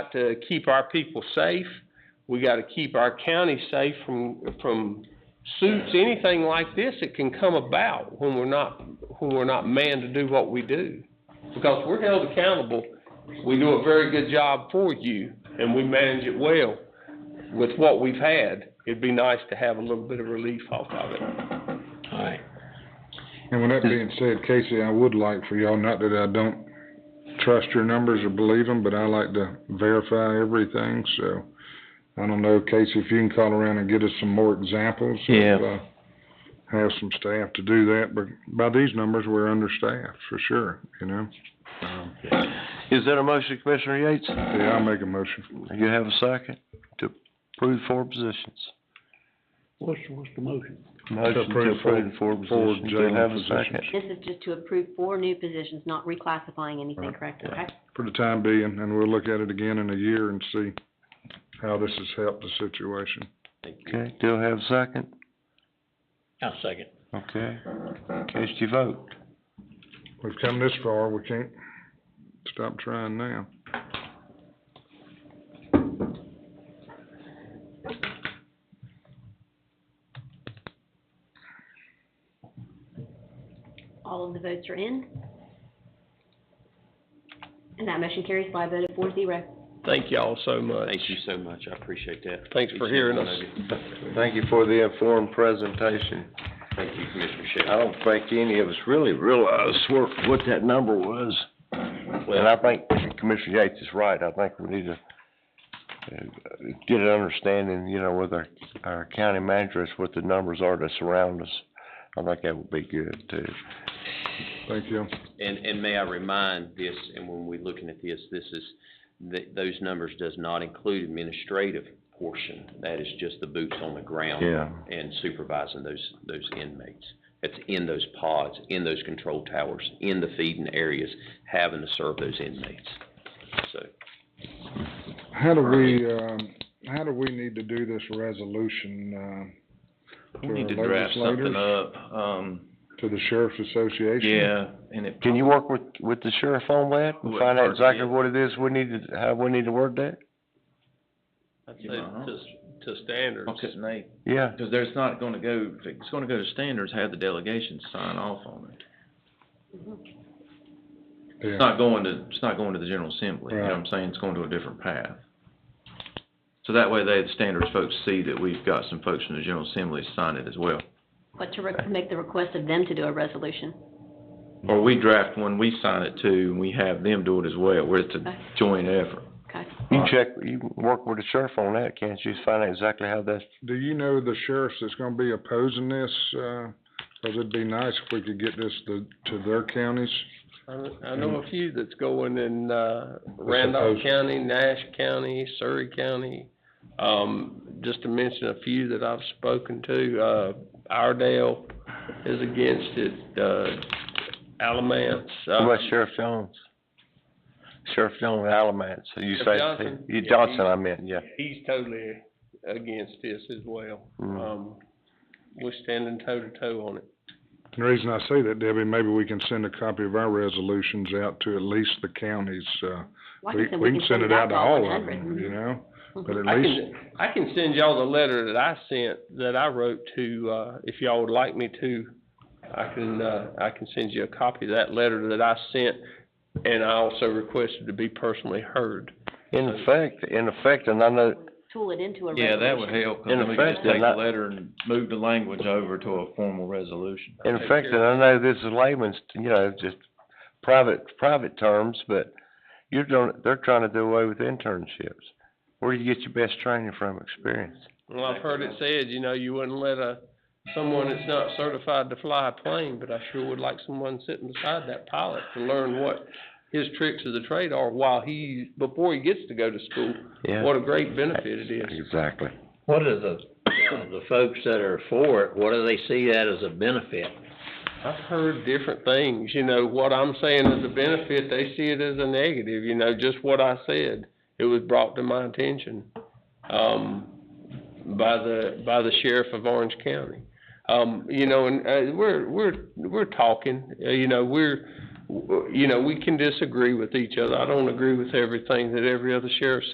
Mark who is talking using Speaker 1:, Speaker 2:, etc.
Speaker 1: to keep our people safe. We gotta keep our county safe from, from suits, anything like this that can come about when we're not, when we're not manned to do what we do. Because we're held accountable. We do a very good job for you, and we manage it well. With what we've had, it'd be nice to have a little bit of relief off of it.
Speaker 2: Alright,
Speaker 3: And with that being said, Casey, I would like for y'all, not that I don't trust your numbers or believe them, but I like to verify everything, so. I don't know, Casey, if you can call around and get us some more examples. of,
Speaker 2: Yeah.
Speaker 3: uh, Have some staff to do that, but by these numbers, we're understaffed for sure, you know? Um,
Speaker 4: Is that a motion, Commissioner Yates?
Speaker 3: Yeah, I'll make a motion.
Speaker 4: Do you have a second to approve four positions?
Speaker 2: what's, what's the motion?
Speaker 4: Motion to
Speaker 3: approve
Speaker 4: approve four
Speaker 3: four
Speaker 4: positions. Do you have
Speaker 3: general
Speaker 4: a second?
Speaker 5: This is just to approve four new positions, not reclassifying anything, correct? Okay?
Speaker 3: For the time being, and we'll look at it again in a year and see how this has helped the situation.
Speaker 4: Okay, do I have a second?
Speaker 2: I'll second.
Speaker 4: Okay. Case you vote.
Speaker 3: We've come this far, we can't stop trying now.
Speaker 5: All of the votes are in. And that motion carries by a vote of four zero.
Speaker 1: Thank y'all so much.
Speaker 2: Thank you so much, I appreciate that.
Speaker 1: Thanks for
Speaker 2: Each and
Speaker 1: hearing
Speaker 2: one
Speaker 1: us.
Speaker 2: of you.
Speaker 4: Thank you for the informed presentation.
Speaker 2: Thank you, Commissioner
Speaker 4: I
Speaker 2: Shea.
Speaker 4: don't think any of us really realized what, what that number was. And I think Commissioner Yates is right. I think we need to uh, get an understanding, you know, with our, our county managers, what the numbers are that surround us. I think that would be good too.
Speaker 3: Thank you.
Speaker 2: And, and may I remind this, and when we're looking at this, this is, th- those numbers does not include administrative portion. That is just the boots on the ground.
Speaker 4: Yeah.
Speaker 2: And supervising those, those inmates. That's in those pods, in those control towers, in the feeding areas, having to serve those inmates. So,
Speaker 3: How do we, um, how do we need to do this resolution, um,
Speaker 6: We
Speaker 3: to
Speaker 6: need to
Speaker 3: our
Speaker 6: draft something
Speaker 3: legislators,
Speaker 6: up, um,
Speaker 3: to the sheriff's association?
Speaker 6: yeah, and it,
Speaker 4: Can you work with, with the sheriff on that and
Speaker 6: Well,
Speaker 4: find out
Speaker 6: first,
Speaker 4: exactly
Speaker 6: yeah.
Speaker 4: what it is we need to, how we need to word that?
Speaker 1: I'd say
Speaker 6: Yeah.
Speaker 1: to, to standards.
Speaker 6: couldn't they,
Speaker 4: Yeah,
Speaker 6: because there's not gonna go, if it's gonna go to standards, have the delegation sign off on it. It's
Speaker 3: Yeah,
Speaker 6: not going to, it's not going to the general assembly, you know what I'm saying, it's going to a different path. So that way they, the standards folks see that we've got some folks from the general assembly to sign it as well.
Speaker 5: But to re- make the request of them to do a resolution.
Speaker 6: Or we draft one, we sign it too, and we have them do it as well, where it's a joint effort.
Speaker 5: Okay?
Speaker 4: you can check, you can work with the sheriff on that, can't you? Find out exactly how that's,
Speaker 3: do you know the sheriffs that's gonna be opposing this, uh, cause it'd be nice if we could get this to, to their counties?
Speaker 1: I I know a few that's going in, uh, Randolph
Speaker 3: supposed-
Speaker 1: County, Nash County, Surrey County, um, just to mention a few that I've spoken to, uh, Iredale is against it, uh, Alamance,
Speaker 4: what
Speaker 1: uh,
Speaker 4: about Sheriff Jones? Sheriff Jones, Alamance, you
Speaker 1: Sheriff
Speaker 4: say,
Speaker 1: Johnson?
Speaker 4: you-
Speaker 1: Yeah,
Speaker 4: Johnson,
Speaker 1: he-
Speaker 4: I meant, yeah.
Speaker 1: he's totally against this as well.
Speaker 4: Mm.
Speaker 1: Um, we're standing toe to toe on it.
Speaker 3: The reason I say that, Debbie, maybe we can send a copy of our resolutions out to at least the counties, uh,
Speaker 5: Well, I
Speaker 3: we,
Speaker 5: think that
Speaker 3: we can send it out to all Mm-hmm. of
Speaker 5: 100.
Speaker 3: them, you know? But at
Speaker 1: I
Speaker 3: least.
Speaker 1: can, I can send y'all the letter that I sent, that I wrote to, uh, if y'all would like me to, I can, uh, I can send you a copy of that letter that I sent, and I also requested to be personally heard.
Speaker 4: In effect, in effect, and I know,
Speaker 5: Tool it into a resolution.
Speaker 6: Yeah, that would help, 'cause
Speaker 4: In
Speaker 6: then we can
Speaker 4: effect,
Speaker 6: just take
Speaker 4: and I-
Speaker 6: the letter and move the language over to a formal resolution.
Speaker 4: in
Speaker 1: Okay,
Speaker 4: effect,
Speaker 1: sure.
Speaker 4: and I know this is layman's, you know, just private, private terms, but you're doing, they're trying to do away with internships. Where do you get your best training from, experience?
Speaker 1: Well, I've heard it said, you know, you wouldn't let a, someone that's not certified to fly a plane, but I sure would like someone sitting beside that pilot to learn what his tricks of the trade are while he, before he gets to go to school.
Speaker 4: Yeah.
Speaker 1: What a great benefit it is.
Speaker 4: Exactly.
Speaker 7: What are the, the folks that are for it, what do they see that as a benefit?
Speaker 1: I've heard different things, you know, what I'm saying is a benefit, they see it as a negative, you know, just what I said. It was brought to my attention, um, by the, by the sheriff of Orange County. Um, you know, and, uh, we're, we're, we're talking, uh, you know, we're, w- you know, we can disagree with each other. I don't agree with everything that every other sheriff